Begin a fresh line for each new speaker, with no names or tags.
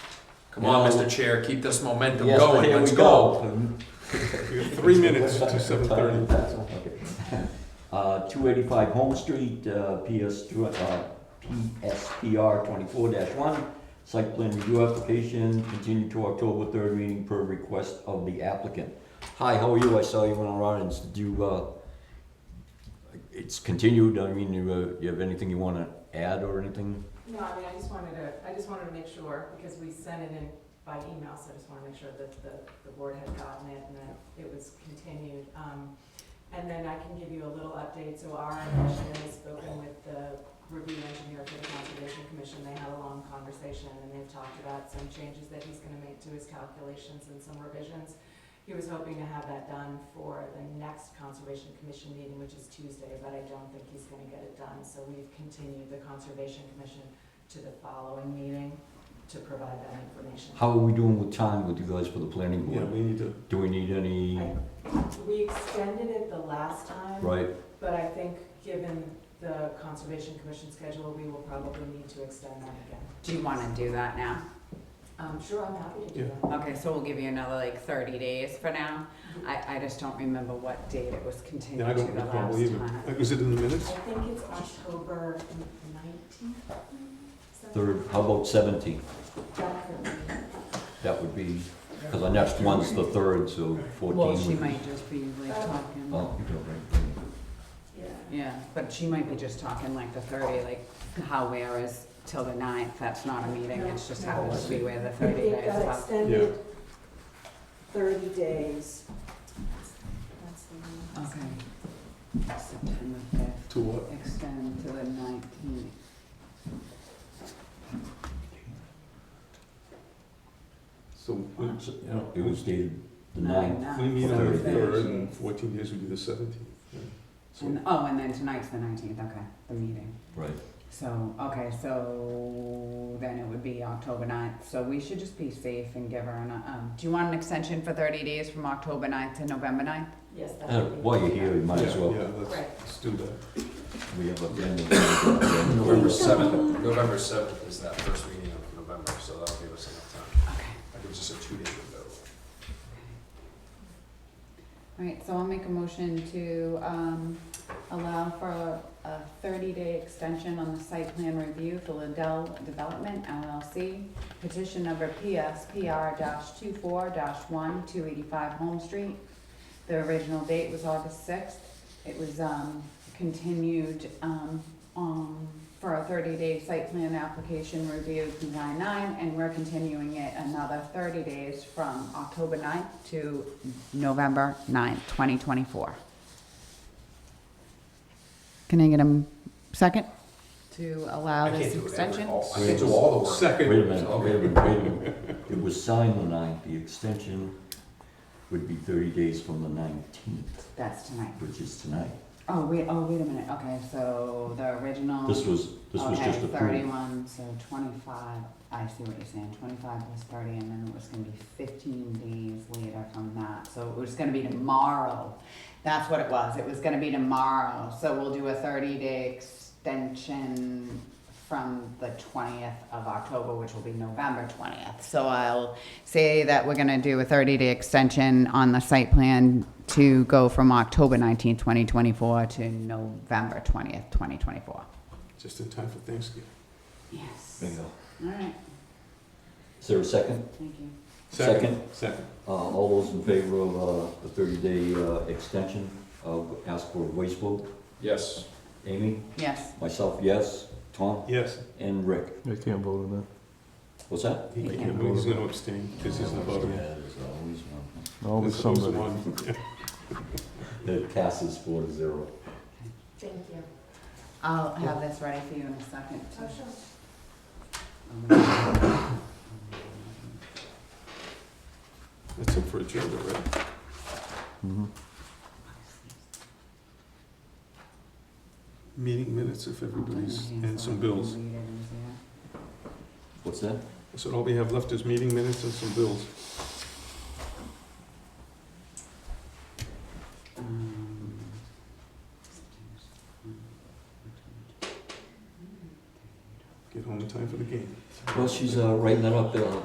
Come on,
No.
Mr. Chair, keep this momentum
Yes, but
going,
here
let's
we
go.
We have three minutes to seven thirty.
Uh, two eighty-five Home Street, uh, PS, tw- uh, PSPR twenty-four one. Site plan review application continued to October third meeting per request of the applicant. Hi, how are you? I saw you went around and s- do, you, uh, it's continued. I mean, you, uh, you have anything you wanna add or anything?
No, I mean, I just wanted to, I just wanted to make sure, because we sent it in by email, so I just wanna make sure that the, the board had gotten it and that it was continued. Um, and then I can give you a little update, so our commission has spoken with the review engineer for the Conservation Commission. They had a long conversation and they've talked about some changes that he's gonna make to his calculations and some revisions. He was hoping to have that done for the next Conservation Commission meeting, which is Tuesday, but I don't think he's gonna get it done. So we've continued the Conservation Commission to the following meeting to provide that information.
How are we doing with time with you guys for the planning
Yeah,
board?
we need to,
Do we need any,
We extended it the last time,
right?
but I think given the Conservation Commission schedule, we will probably need to extend that again.
Do you want to do that now?
Um, sure, I'm happy to do
Yeah.
that.
Okay, so we'll give you another like thirty days for now. I, I just don't remember what date it was
yeah, I
continued to
don't
the
recall
last
either.
time.
Like, Was it in the
I
minutes?
think it's October nineteenth.
Third, how about seventeen?
Well,
That would be, because our next one's the third, so fourteen
Well,
would
she
be.
might just be like talking,
Oh, you don't right.
Yeah.
yeah, but she might be just talking like the thirty, like how where is till the ninth, that's not a meeting, it's just happens to be where the thirty
It
days
got
are.
extended thirty days. That's the one.
Okay. September fifth,
To what?
extend to the nineteenth.
So, we-
Uh,
you know,
It was dated the ninth.
Nine, nine.
we meet on the
Thirty days.
third and fourteen days would be the seventeenth. So,
And, oh, and then tonight's the nineteenth, okay, the meeting.
Right.
So, okay, so then it would be October ninth, so we should just be safe and give her an, um, do you want an extension for thirty days from October ninth to November ninth?
Yes, that
Uh,
would be.
While you're here, you might
yeah,
as well,
yeah, let's,
Right.
let's do that.
we have a plan.
November seventh, November seventh is that first meeting of November, so that'll give us enough time.
Okay.
That gives us a two-day window.
Alright, so I'll make a motion to, um, allow for a- a thirty-day extension on the site plan review for Liddell Development LLC, petition number PSPR dash two-four dash one, two eighty-five Home Street. The original date was August sixth, it was, um, continued, um, um, for a thirty-day site plan application review through nine-nine, and we're continuing it another thirty days from October 9th to November 9th, 2024. Can I get a m- second to allow
I can't
this
do it every,
extension?
all- I can't do all the work.
Wait a
Second,
minute, wait a minute, wait a minute. It was signed the ninth, the extension would be thirty days from the nineteenth,
That's tonight.
which is tonight.
Oh, wait, oh, wait a minute. Okay, so the original.
This was, this was just
Okay,
approved.
31, so 25, I see what you're saying. 25 was 30, and then it was going to be 15 days later from that. So it was going to be tomorrow. That's what it was. It was going to be tomorrow. So we'll do a 30-day extension from the 20th of October, which will be November 20th. So I'll say that we're going to do a 30-day extension on the site plan to go from October 19th, 2024 to November 20th, 2024.
just in time for Thanksgiving.
Yes.
Bingo.
All right,
Is there a second?
thank you.
Second.
Uh, all those in favor of, uh, the thirty-day, uh, extension, uh, ask for a voice vote?
Yes,
Amy?
Yes,
Myself, yes. Tom?
Yes,
And Rick?
I can't vote on
What's that?
he
Yeah.
can't, he's gonna abstain because he's not voting.
Yeah, there's always one.
that. Always
This was the
somebody.
one.
That passes four to zero.
Thank you.
I'll have this ready for you in a second.
Oh, sure.
Oh,
That's it for agenda, right?
Mhm.
Meeting minutes if everybody's, and some bills.
What's that?
So all we have left is meeting minutes and some bills.
Um,
Get home in time for the game.
Well, she's, uh, writing that up, uh,